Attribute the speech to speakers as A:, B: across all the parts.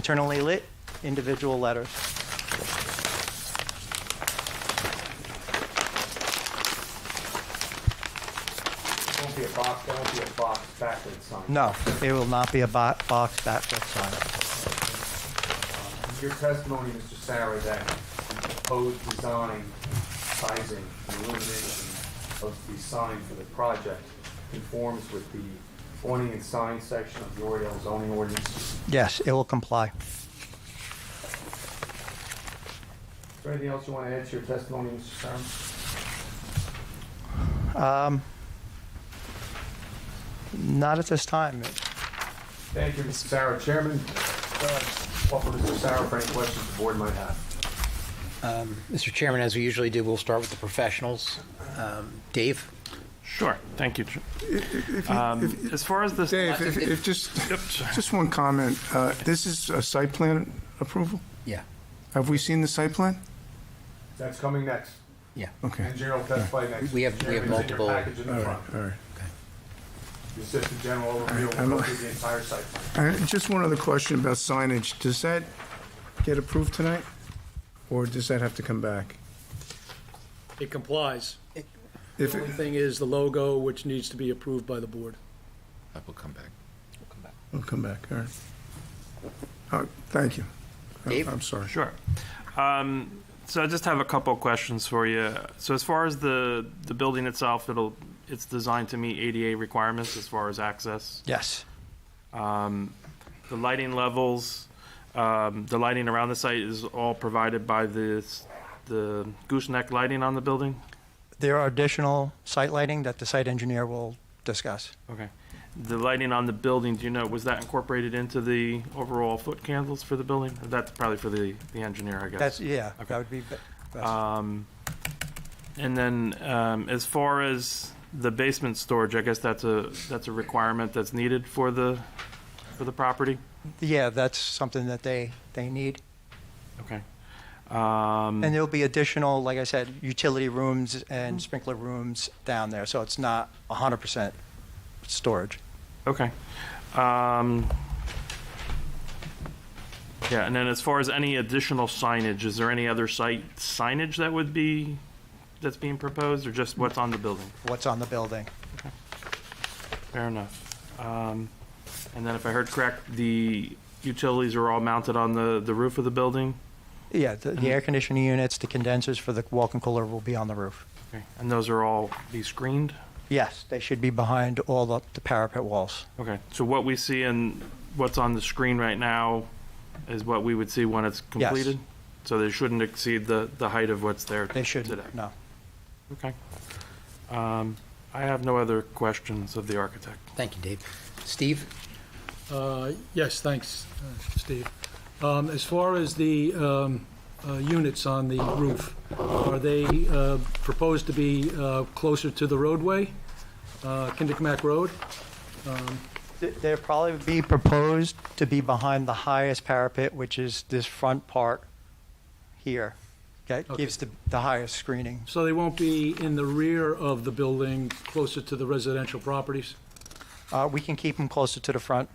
A: internally lit individual letters.
B: Won't be a box, that won't be a box backlit sign.
A: No, it will not be a bo- box backlit sign.
B: Your testimony, Mr. Sarah, that the proposed design, sizing, and illumination of the sign for the project conforms with the awning and sign section of the Oriole zoning ordinance.
A: Yes, it will comply.
B: Is there anything else you want to add to your testimony, Mr. Sarah?
A: Um, Not at this time.
B: Thank you, Mr. Sarah. Chairman, uh, offer Mr. Sarah for any questions the board might have.
C: Um, Mr. Chairman, as we usually do, we'll start with the professionals. Um, Dave?
D: Sure, thank you. Tr- Um, As far as this.
E: Dave, if, if just, just one comment. Uh, This is a site plan approval?
C: Yeah.
E: Have we seen the site plan?
B: That's coming next.
C: Yeah.
E: Okay.
B: Engineer will testify next.
C: We have- we have
B: Chairman, it's in your
C: multiple-
B: package in
E: All
B: the
E: right,
B: front.
E: all right.
B: The Assistant General
E: right,
B: overview
E: I'm
B: will go
E: a-
B: through the entire site plan.
E: And just one other question about signage. Does that get approved tonight? Or does that have to come back?
F: It complies.
E: If,
F: The
E: it-
F: only thing is the logo, which needs to be approved by the board.
G: That will come back.
E: it'll come back, all right. All right, thank you. I'm-
C: Dave?
E: I'm sorry.
D: Sure. Um, so I just have a couple of questions for you. So as far as the, the building itself, it'll, it's designed to meet ADA requirements as far as access.
A: Yes,
D: Um, the lighting levels, um, the lighting around the site is all provided by this, the gooseneck lighting on the building?
A: there are additional site lighting that the site engineer will discuss.
D: Okay. The lighting on the building, do you know, was that incorporated into the overall foot candles for the building? That's probably for the, the engineer, I guess.
A: That's, yeah,
D: Okay.
A: that would be be- best.
D: Um, and then, um, as far as the basement storage, I guess that's a, that's a requirement that's needed for the, for the property?
A: Yeah, that's something that they, they need.
D: Okay.
A: And
D: Um,
A: there'll be additional, like I said, utility rooms and sprinkler rooms down there, so it's not 100% storage.
D: okay. Um, yeah, and then as far as any additional signage, is there any other site signage that would be, that's being proposed, or just what's on the building?
A: What's on the building?
D: Fair enough. Um, and then if I heard correct, the utilities are all mounted on the, the roof of the building?
A: Yeah, the, the air conditioning units, the condensers for the walk-in cooler will be on the roof.
D: Okay, and those are all be screened?
A: Yes, they should be behind all the, the parapet walls.
D: Okay, so what we see and what's on the screen right now is what we would see when it's
A: Yes.
D: completed? So they shouldn't exceed the, the height of what's there
A: They
D: today?
A: shouldn't, no.
D: Okay. Um, I have no other questions of the architect.
C: Thank you, Dave. Steve?
F: Uh, Yes, thanks, uh, Steve. Um, As far as the um, uh, units on the roof, are they uh, proposed to be uh, closer to the roadway, uh, Kendrickmack Road?
A: Th- They'll probably be proposed to be behind the highest parapet, which is this front part here. That
F: Okay.
A: gives the, the highest screening.
F: So they won't be in the rear of the building, closer to the residential properties?
A: Uh, we can keep them closer to the front.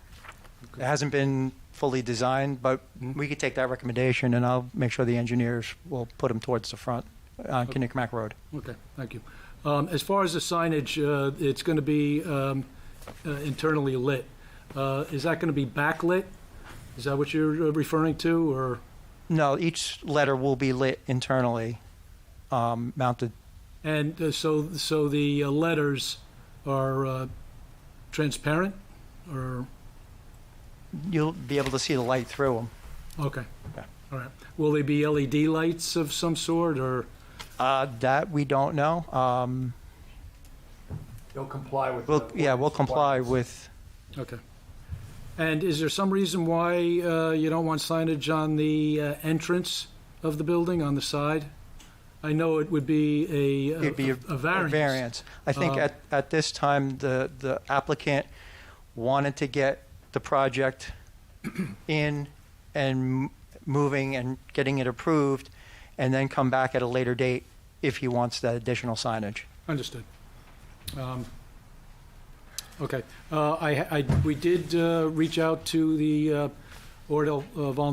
A: It hasn't been fully designed, but we could take that recommendation and I'll make sure the engineers will put them towards the front on Kinnickmack Road.
F: Okay, thank you. Um, As far as the signage, uh, it's going to be um, uh, internally lit. Uh, Is that going to be backlit? Is that what you're uh, referring to, or?
A: No, each letter will be lit internally, um, mounted.
F: And uh, so, so the uh, letters are uh, transparent, or,
A: You'll be able to see the light through them.
F: okay.
A: Yeah.
F: All right. Will they be LED lights of some sort, or,
A: Uh, that we don't know. Um,
B: They'll comply with.
A: we'll,
B: the
A: yeah, we'll comply
B: ordinance
A: with,
F: okay. And is there some reason why uh, you don't want signage on the uh, entrance of the building, on the side? I know it would be a,
A: it'd be
F: a a variance.
A: I think
F: Uh,
A: at, at this time, the, the applicant wanted to get the project in and m- moving and getting it approved, and then come back at a later date if he wants that additional signage.
F: Understood. Um, Okay, Uh, I, I- we did uh, reach out to the uh, or they'll uh, volunteer